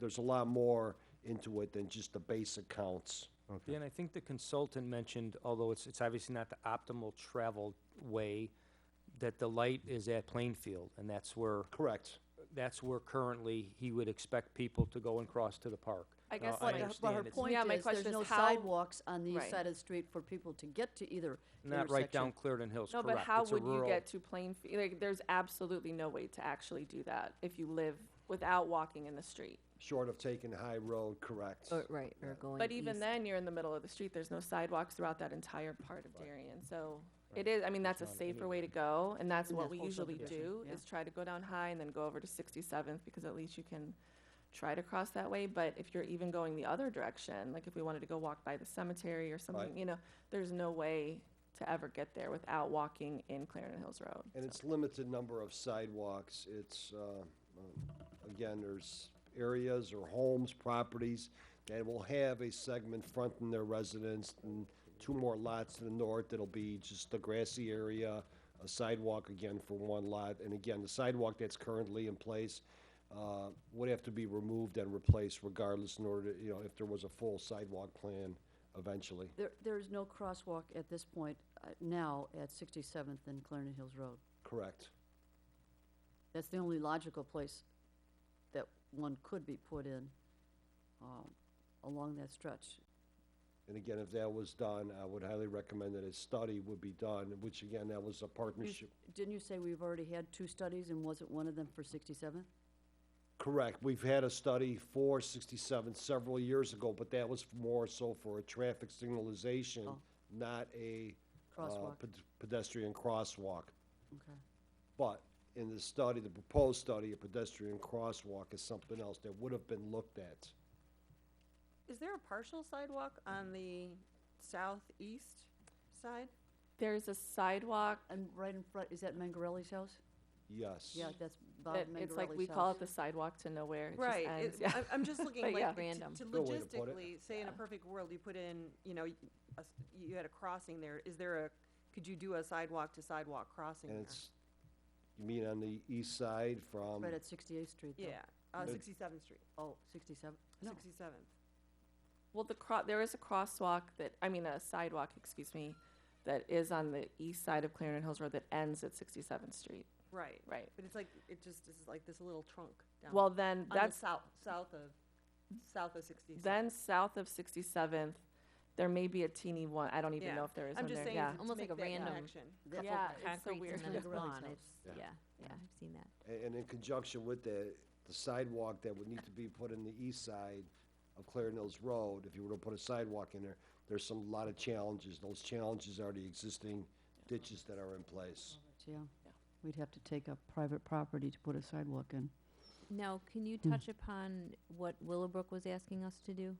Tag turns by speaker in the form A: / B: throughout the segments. A: there's a lot more into it than just the base accounts.
B: Okay,
C: Dan, I think the consultant mentioned, although it's, it's obviously not the optimal travel way, that the light is at Plainfield, and that's where,
A: Correct.
C: that's where currently he would expect people to go and cross to the park.
D: I
C: Now,
D: guess like,
C: understand
D: but her
C: it's
D: point
E: Yeah, my
D: is, there's
E: question is
D: no
E: how-
D: sidewalks on the east
E: Right.
D: side of the street for people to get to either
C: Not right down
D: intersection.
C: Clarendon Hills,
E: No,
C: correct.
E: but how
C: It's a
E: would you
C: rural-
E: get to Plainfield? Like, there's absolutely no way to actually do that if you live without walking in the street.
A: Short of taking the high road, correct.
F: Or- Right, or going
E: But e even
F: east.
E: then, you're in the middle of the street. There's no sidewalks throughout that entire part of Darien. So it is, I mean, that's a safer way to go, and that's
D: And
E: what
D: that's
E: we
D: also the
E: usually
D: issue,
E: do,
D: yeah.
E: is try to go down high and then go over to 67th, because at least you can try to cross that way. But if you're even going the other direction, like if we wanted to go walk by the cemetery or something, you know, there's no way to ever get there without walking in Clarendon Hills Road.
A: And it's limited number of sidewalks. It's, uh, uh, again, there's areas or homes, properties that will have a segment fronting their residence and two more lots to the north that'll be just the grassy area, a sidewalk again for one lot. And again, the sidewalk that's currently in place uh, would have to be removed and replaced regardless in order, to you know, if there was a full sidewalk plan eventually.
D: There, there is no crosswalk at this point, uh, now at 67th and Clarendon Hills Road.
A: Correct.
D: That's the only logical place that one could be put in um, along that stretch.
A: And again, if that was done, I would highly recommend that a study would be done, which again, that was a
D: You s-
A: partnership.
D: Didn't you say we've already had two studies, and wasn't one of them for 67th?
A: Correct. We've had a study for 67 several years ago, but that was more so for a traffic signalization,
D: Oh.
A: not a uh,
D: Crosswalk.
A: ped- pedestrian crosswalk.
D: Okay.
A: But in the study, the proposed study, a pedestrian crosswalk is something else that would have been looked at.
G: Is there a partial sidewalk on the southeast side?
E: There's a sidewalk
D: And right in front, is that Mangarelli's house?
A: Yes.
D: Yeah, that's Bob
E: that,
D: Mangarelli's house.
E: it's like, we call it the sidewalk to nowhere. It just
G: Right,
E: ends,
G: it-
E: yeah.
G: I'm, I'm just looking
E: But yeah.
G: like, to-
F: Random.
G: to
A: Good way to put it.
G: logistically, say in a perfect world, you put in, you know, y- a s- you had a crossing there, is there a, could you do a sidewalk to sidewalk crossing
A: And
G: there?
A: it's, you mean on the east side
C: Um,
A: from,
D: Right at 68th Street, though.
G: Yeah, uh,
A: It-
G: Sixty-seventh Street,
D: Oh, 67? No.
G: Sixty-seventh.
E: Well, the cro- there is a crosswalk that, I mean, a sidewalk, excuse me, that is on the east side of Clarendon Hills Road that ends at 67th Street.
G: Right.
E: Right.
G: But it's like, it just, this is like this little trunk down.
E: Well, then
G: on the
E: that's,
G: South, south of, south of sixty-seventh.
E: then south of 67th, there may be a teeny one. I don't even
G: Yeah.
E: know if there is
G: I'm
E: one
G: just
E: there.
G: saying,
E: Yeah.
G: to
F: Almost like
G: make
F: a
G: that
F: random-
G: connection.
D: That's
E: Yeah,
D: okay.
E: it's so
F: Concrete
E: weird.
F: and then it's
D: Mangarelli's
F: gone.
D: house.
F: It's, yeah, yeah, I've seen that.
A: A- And in conjunction with that, the sidewalk that would need to be put in the east side of Clarendon Hills Road, if you were to put a sidewalk in there, there's some, lot of challenges. Those challenges are the existing ditches that are in place.
D: Yeah, we'd have to take up private property to put a sidewalk in.
F: Now, can you touch upon what Willowbrook was asking us to do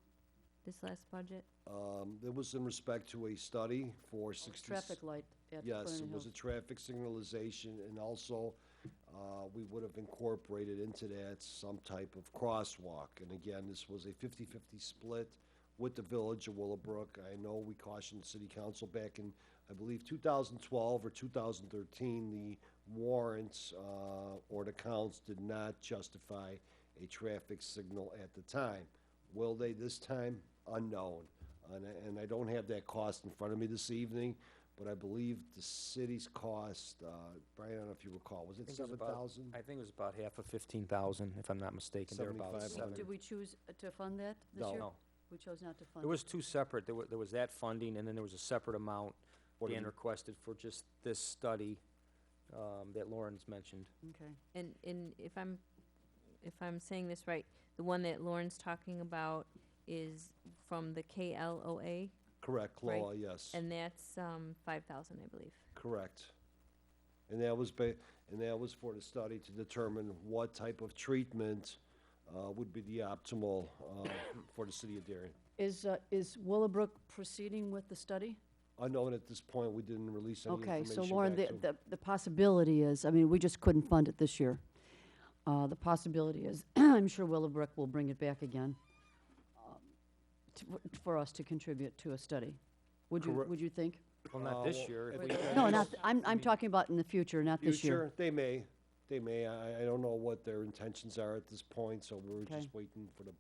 F: this last budget?
A: Um, That was in respect to a study for sixty.
D: Oh, Traffic light at
A: Yes,
D: Clarendon
A: it was a
D: Hills.
A: traffic signalization, and also, uh, we would have incorporated into that some type of crosswalk. And again, this was a 50-50 split with the village of Willowbrook. I know we cautioned city council back in, I believe, 2012 or 2013, the warrants uh, or the counts did not justify a traffic signal at the time. Will they this time? Unknown. And, I- and I don't have that cost in front of me this evening, but I believe the city's cost, uh, Brian, I don't know if you recall, was it
C: I think it was
A: seven
C: about-
A: thousand?
C: I think it was about half of fifteen thousand, if I'm not mistaken, there about
A: 75.
C: seven.
D: Did we choose uh, to fund that this
A: No.
D: year?
C: No.
D: We chose not to fund.
C: There was two separate, there was, there was that funding, and then there was a separate amount
A: What
C: being
A: did-
C: requested for just this study, um, that Lauren's mentioned.
D: it. Okay.
F: And, and if I'm, if I'm saying this right, the one that Lauren's talking about is from the KLOA,
A: Correct,
F: Right.
A: Claw, yes,
F: and that's, um, five thousand, I believe.
A: correct. And that was ba, and that was for the study to determine what type of treatment, uh, would be the optimal, uh, for the city of Darien.
D: Is, uh, is Willowbrook proceeding with the study?
A: Unknown at this point, we didn't release any
D: Okay,
A: information
D: so Lauren,
A: back
D: the,
A: to
D: the, the possibility is, I mean, we just couldn't fund it this year. Uh, the possibility is, I'm sure Willowbrook will bring it back again um, to- for us to contribute to a study. Would you,
A: Correct.
D: would you think?
C: Well,
A: Uh,
C: not this
A: well,
C: year. if
A: if
C: we
A: they-
C: had
D: No,
C: this-
D: not, th- I'm, I'm talking about in the future, not this year.
A: Future, they may, They may, I, I don't know what their intentions are at this point, so we're
D: Okay.
A: just waiting for the